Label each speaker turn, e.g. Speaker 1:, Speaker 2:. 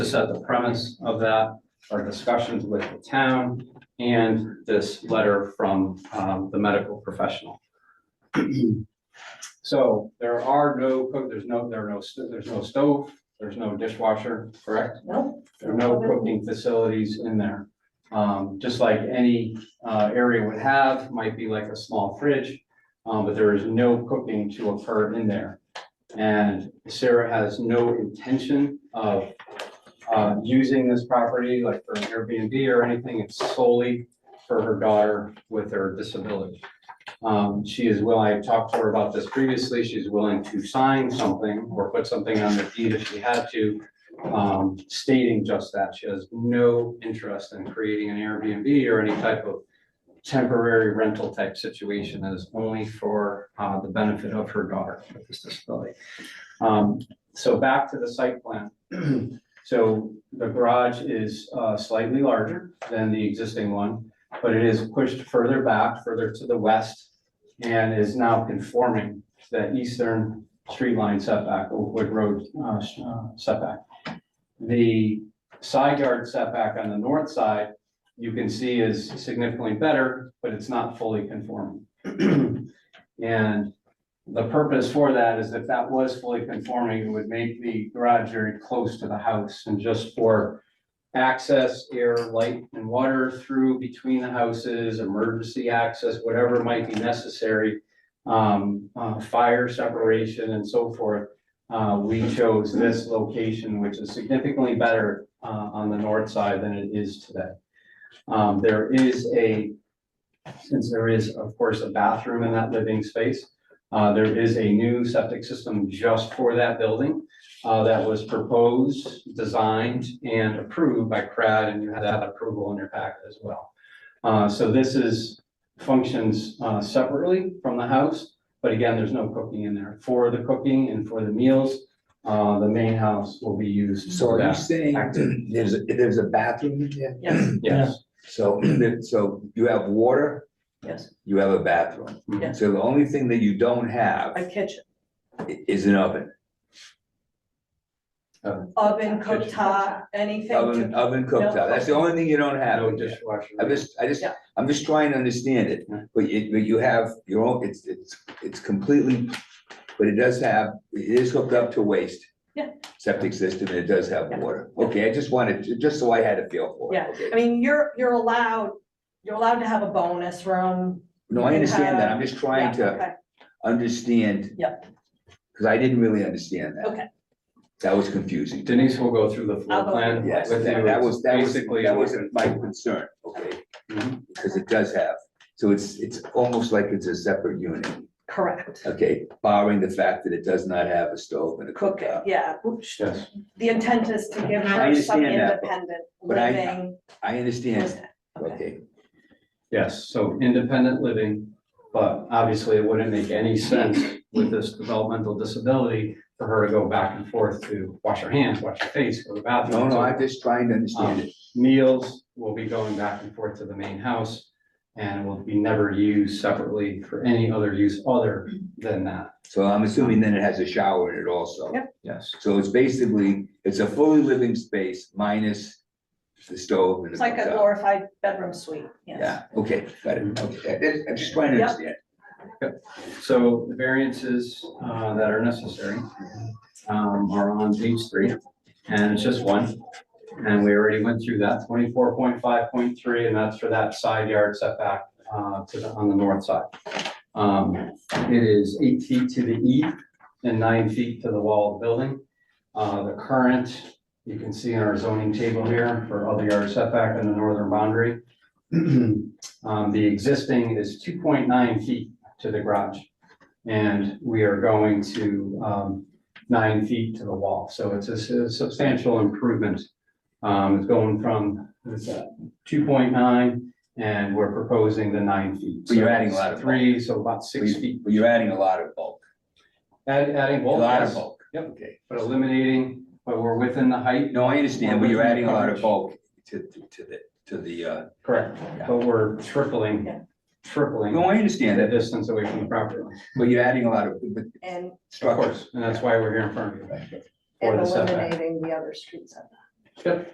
Speaker 1: to set the premise of that, our discussions with the town, and this letter from um, the medical professional. So there are no, cook- there's no, there are no, st- there's no stove, there's no dishwasher, correct?
Speaker 2: No.
Speaker 1: There are no cooking facilities in there. Um, just like any, uh, area would have, might be like a small fridge, um, but there is no cooking to occur in there. And Sarah has no intention of, uh, using this property like for an Airbnb or anything. It's solely for her daughter with her disability. Um, she is willing, I talked to her about this previously, she's willing to sign something or put something on the deed if she had to um, stating just that. She has no interest in creating an Airbnb or any type of temporary rental type situation that is only for, uh, the benefit of her daughter with this disability. Um, so back to the site plan. So the garage is, uh, slightly larger than the existing one, but it is pushed further back, further to the west, and is now conforming to that eastern street line setback, Oakwood Road, uh, sh- uh, setback. The side yard setback on the north side, you can see is significantly better, but it's not fully conforming. And the purpose for that is if that was fully conforming, it would make the garage very close to the house and just for access, air, light and water through between the houses, emergency access, whatever might be necessary, um, uh, fire separation and so forth. Uh, we chose this location, which is significantly better, uh, on the north side than it is today. Um, there is a, since there is, of course, a bathroom in that living space, uh, there is a new septic system just for that building, uh, that was proposed, designed, and approved by CRAD, and you had that approval in your packet as well. Uh, so this is, functions, uh, separately from the house, but again, there's no cooking in there. For the cooking and for the meals, uh, the main house will be used
Speaker 3: So
Speaker 1: for
Speaker 3: are you
Speaker 1: that.
Speaker 3: saying there's, a- there's a bathroom in there?
Speaker 2: Yes,
Speaker 1: Yes,
Speaker 3: So, so you have water,
Speaker 2: yes,
Speaker 3: you have a bathroom.
Speaker 1: Mm-hmm.
Speaker 2: yes,
Speaker 3: So the only thing that you don't have
Speaker 2: a kitchen,
Speaker 3: i- is an oven,
Speaker 2: oven,
Speaker 1: Kitchen.
Speaker 2: cooktop, anything
Speaker 3: oven,
Speaker 2: to,
Speaker 3: oven cooktop. That's the only thing you don't have.
Speaker 1: no dishwasher.
Speaker 3: I'm just, I just,
Speaker 2: Yeah.
Speaker 3: I'm just trying to understand it,
Speaker 1: Yeah.
Speaker 3: but you, but you have your own, it's, it's, it's completely, but it does have, it is hooked up to waste.
Speaker 2: Yeah.
Speaker 3: Septic system, and it does have
Speaker 2: Yeah.
Speaker 3: water. Okay, I just wanted, to- just so I had a feel for it.
Speaker 2: Yeah.
Speaker 3: okay?
Speaker 2: I mean, you're, you're allowed, you're allowed to have a bonus room.
Speaker 3: No, I
Speaker 2: you
Speaker 3: understand that.
Speaker 2: have-
Speaker 3: I'm just
Speaker 2: Yeah,
Speaker 3: trying to
Speaker 2: okay.
Speaker 3: understand.
Speaker 2: Yep.
Speaker 3: Because I didn't really understand that.
Speaker 2: Okay.
Speaker 3: That was confusing.
Speaker 1: Denise will go through the
Speaker 2: I'll
Speaker 1: floor
Speaker 2: go
Speaker 1: plan.
Speaker 3: Yes,
Speaker 1: with
Speaker 3: that
Speaker 1: you.
Speaker 3: that was, that was,
Speaker 1: Basically,
Speaker 3: that was my concern, okay,
Speaker 1: Mhm.
Speaker 3: because it does have, so it's, it's almost like it's a separate unit.
Speaker 2: Correct,
Speaker 3: Okay, barring the fact that it does not have a stove and a
Speaker 2: cook it,
Speaker 3: cooktop.
Speaker 2: yeah, Oops.
Speaker 1: Yes,
Speaker 2: the intent is to give
Speaker 3: I
Speaker 2: her some
Speaker 3: understand that, but-
Speaker 2: independent
Speaker 3: but I-
Speaker 2: living.
Speaker 3: I understand,
Speaker 2: Okay,
Speaker 3: okay,
Speaker 1: yes, so independent living, but obviously it wouldn't make any sense with this developmental disability for her to go back and forth to wash her hands, wash her face, go to the
Speaker 3: no,
Speaker 1: bathroom.
Speaker 3: no, I'm just trying to
Speaker 1: Um,
Speaker 3: understand
Speaker 2: Oh.
Speaker 3: it,
Speaker 1: Meals will be going back and forth to the main house and will be never used separately for any other use other than that.
Speaker 3: so I'm assuming then it has a shower in it also.
Speaker 2: Yep.
Speaker 1: Yes.
Speaker 3: So it's basically, it's a fully living space minus the stove and the
Speaker 2: it's like a
Speaker 3: cooktop.
Speaker 2: glorified bedroom suite, yes.
Speaker 3: Yeah, okay, got it, okay, I- I'm just trying to
Speaker 2: Yep.
Speaker 3: understand,
Speaker 1: So the variances uh, that are necessary um, are on page three, and it's just one. And we already went through that, twenty-four point five point three, and that's for that side yard setback uh, to the, on the north side. Um, It is eight feet to the E and nine feet to the wall of the building. Uh, The current, you can see in our zoning table here for other yard setback on the northern boundary. Um, The existing is two point nine feet to the garage. And we are going to um, nine feet to the wall. So it's a su- substantial improvement. Um, It's going from two point nine and we're proposing the nine feet.
Speaker 3: But you're
Speaker 1: So
Speaker 3: adding a
Speaker 1: it's
Speaker 3: lot of bulk.
Speaker 1: Three, so about six
Speaker 3: But
Speaker 1: feet.
Speaker 3: you- but you're adding a lot of bulk,
Speaker 1: Add- Adding
Speaker 3: a
Speaker 1: bulk,
Speaker 3: lot of
Speaker 1: yes,
Speaker 3: bulk.
Speaker 1: Yep.
Speaker 3: Okay,
Speaker 1: but eliminating, but we're within the height.
Speaker 3: no, I understand, but you're
Speaker 1: Well,
Speaker 3: adding a lot
Speaker 1: coverage.
Speaker 3: of bulk to, to to the, to the, uh,
Speaker 1: Correct.
Speaker 3: Yeah.
Speaker 1: But we're tripling,
Speaker 2: Yeah.
Speaker 1: tripling
Speaker 3: no, I
Speaker 1: the
Speaker 3: understand that,
Speaker 1: distance away from the property line.
Speaker 3: but you're adding a lot of, but
Speaker 2: And,
Speaker 1: Of
Speaker 3: structures.
Speaker 1: course, and that's why we're here in front of you.
Speaker 3: Right.
Speaker 1: For
Speaker 2: and
Speaker 1: the setback.
Speaker 2: eliminating the other streets.
Speaker 1: Yep.